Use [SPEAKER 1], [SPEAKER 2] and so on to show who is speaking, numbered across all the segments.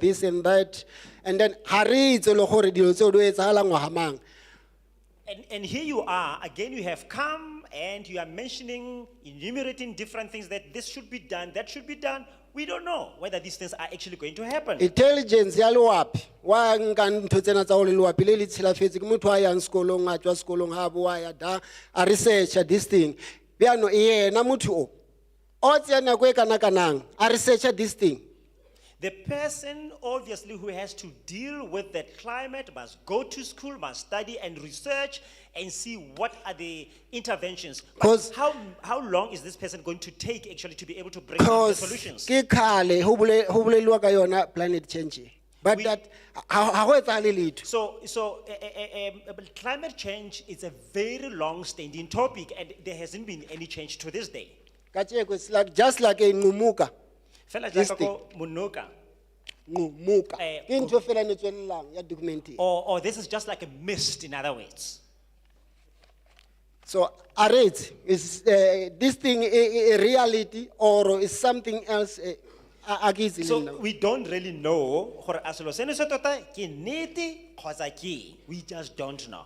[SPEAKER 1] this and that and then ha re itse le gore dilo tseo di etsagalang ngwaga mang
[SPEAKER 2] And, and here you are, again, you have come and you are mentioning, enumerating different things that this should be done, that should be done. We don't know whether these things are actually going to happen.
[SPEAKER 1] intelligence ya loapi wa nka ntho tsena tsa gore loapi le le tshilafetse ke motho a yang sekolong a tswa sekolong ga a boa ya da a researcha this thing bjano e yena motho o o tseya nako e kana-kanang a researcha this thing
[SPEAKER 2] The person, obviously, who has to deal with that climate must go to school, must study and research and see what are the interventions. But
[SPEAKER 1] 'Cause-
[SPEAKER 2] how, how long is this person going to take actually to be able to bring up the
[SPEAKER 1] because
[SPEAKER 2] solutions?
[SPEAKER 1] ke kgale ho bole- ho boleliwa ka yona planet change e. but
[SPEAKER 2] We-
[SPEAKER 1] that ha ha go etsagale letho
[SPEAKER 2] So, so eh, eh, eh, um, but climate change is a very long-standing topic, and there hasn't been any change to this day.
[SPEAKER 1] kacheko it's like just like a nqumuka
[SPEAKER 2] Fela
[SPEAKER 1] This
[SPEAKER 2] jaaka ko Munoka,
[SPEAKER 1] nqumuka
[SPEAKER 2] Eh,
[SPEAKER 1] ke ntho fela ne tswelelang ya document e.
[SPEAKER 2] or, or this is just like a mist, in other words.
[SPEAKER 1] so are it is uh, this thing a, a reality or is something else eh, a a ke itse le
[SPEAKER 2] So
[SPEAKER 1] nna.
[SPEAKER 2] we don't really know gore a selo seno se tota ke nnete kgotsa ke eng. We just don't know.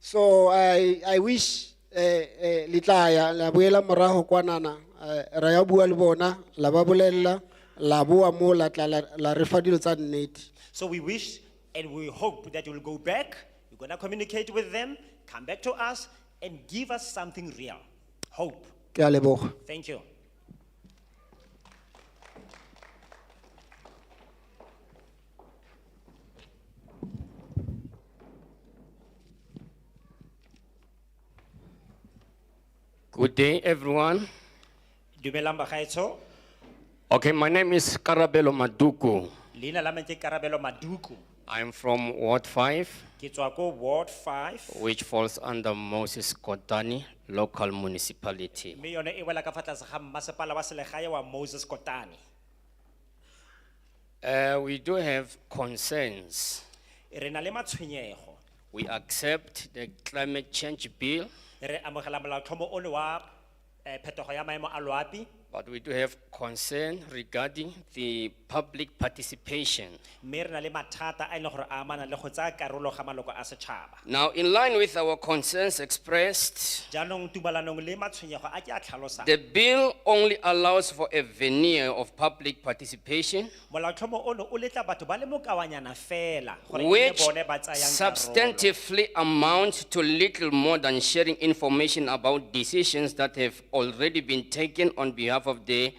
[SPEAKER 1] so i i wish eh, eh, le tla ya la boela morago kwanana eh, ra ya bua le bona la ba bolelela la boa mo la tla la- la re fa dilo tsa nnete
[SPEAKER 2] So we wish and we hope that you'll go back, you're going to communicate with them, come back to us, and give us something real. Hope.
[SPEAKER 1] ke a leboga
[SPEAKER 2] Thank you.
[SPEAKER 3] Good day, everyone.
[SPEAKER 2] Dumelang bagaetsho.
[SPEAKER 3] Okay, my name is Karabelo Maduku.
[SPEAKER 2] Leina la me ke Karabelo Maduku.
[SPEAKER 3] I'm from Ward 5,
[SPEAKER 2] Ke tswa ko Ward 5.
[SPEAKER 3] which falls under Moses Kotani local municipality.
[SPEAKER 2] Me yone e wela ka fa tlase ga mmasepala wa selegae wa Moses Kotane.
[SPEAKER 3] Uh, we do have concerns.
[SPEAKER 2] Re na le matshwenyego.
[SPEAKER 3] We accept the climate change bill,
[SPEAKER 2] Re amogela molaotlhomo ono wa eh, phetogo ya maemo a loapi.
[SPEAKER 3] but we do have concern regarding the public participation.
[SPEAKER 2] Me re na le mathata a ile gore a amana le go tsaya karolo ga maloko a setšhaba.
[SPEAKER 3] Now, in line with our concerns expressed,
[SPEAKER 2] Jaanong tumalanong le matshwenyego a ke a tlhalosang.
[SPEAKER 3] the bill only allows for a veneer of public participation
[SPEAKER 2] Molaotlhomo ono o letla batho ba le mokawanyana fela gore e nne
[SPEAKER 3] Which
[SPEAKER 2] bone ba tsayang karolo.
[SPEAKER 3] substantively amounts to little more than sharing information about decisions that have already been taken on behalf of the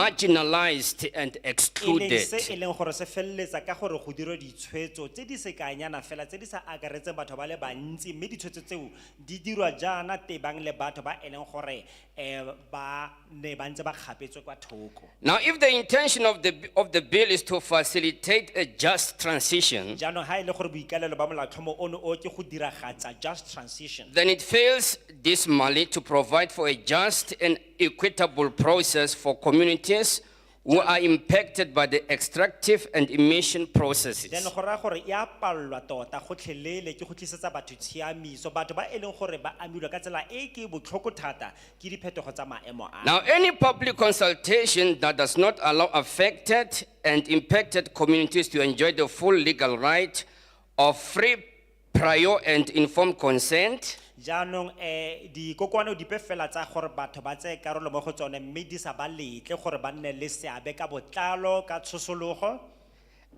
[SPEAKER 3] marginalized and
[SPEAKER 2] e leng se e
[SPEAKER 3] excluded.
[SPEAKER 2] leng gore se feleletsa ka gore go dirwe ditshwetso tse di sekanyana fela tse di sa akaretseng batho ba le bantsi mme ditshwetso tseo di dirwa jaana tebang le batho ba e leng gore um ba ne ba ntse ba kgapetswe kwa thoko
[SPEAKER 3] Now, if the intention of the, of the bill is to facilitate a just transition,
[SPEAKER 2] jaanong ga e le gore boikalelo ba molaotlhomo ono o ke go diragatsa just transition
[SPEAKER 3] then it fails dismally to provide for a just and equitable process for communities who are impacted by the extractive and emission processes.
[SPEAKER 2] then go raya gore e a palelwa tota gotlhelele ke go tlisetsa batho tshiamiso batho ba e leng gore ba amilwe ka tsela e ke botlhoko thata ke diphetogo tsa maemo a
[SPEAKER 3] Now, any public consultation that does not allow affected and impacted communities to enjoy the full legal right of free, prior, and informed consent
[SPEAKER 2] jaanong um dikokoano dipe fela tsa gore batho ba tseye karolo mo go tsone mme di sa ba letle gore ba nne le seabe ka botlalo ka tshosologo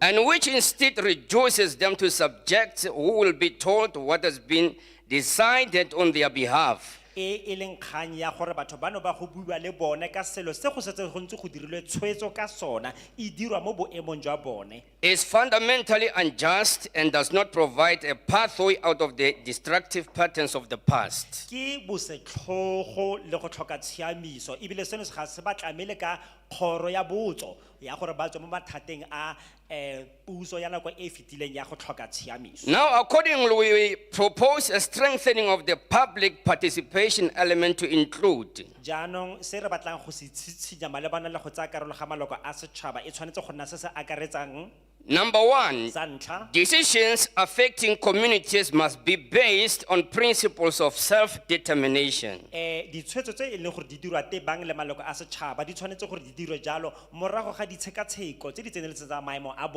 [SPEAKER 3] and which instead reduces them to subjects who will be told what has been decided on their behalf.
[SPEAKER 2] e e leng kgang ya gore batho bano ba go buiwa le bone ka selo se go setse go ntse go dirilwe tshwetso ka sona e dirwa mo boemong jwa bone
[SPEAKER 3] is fundamentally unjust and does not provide a pathway out of the destructive patterns of the past.
[SPEAKER 2] ke bosetlhogo le go tlhoka tshiamiso ebile seno se ga se ba tlamele ka kgoro ya botso ya gore ba tswe mo mathateng a um puso ya nako e e fetileng ya go tlhoka tshiamiso
[SPEAKER 3] Now, accordingly, we propose a strengthening of the public participation element to include
[SPEAKER 2] jaanong se re batlang go se tshitshinya malebana le go tsaya karolo ga maloko a setšhaba e tshwanetse go nna se se akaretsang
[SPEAKER 3] Number one,
[SPEAKER 2] sa ntlha
[SPEAKER 3] decisions affecting communities must be based on principles of self determination.
[SPEAKER 2] eh ditshwetso tse e leng gore di dirwa tebang le maloko a setšhaba di tshwanetse gore di dirwe jalo morago ga ditshekatsheko tse di tseneletse tsa maemo a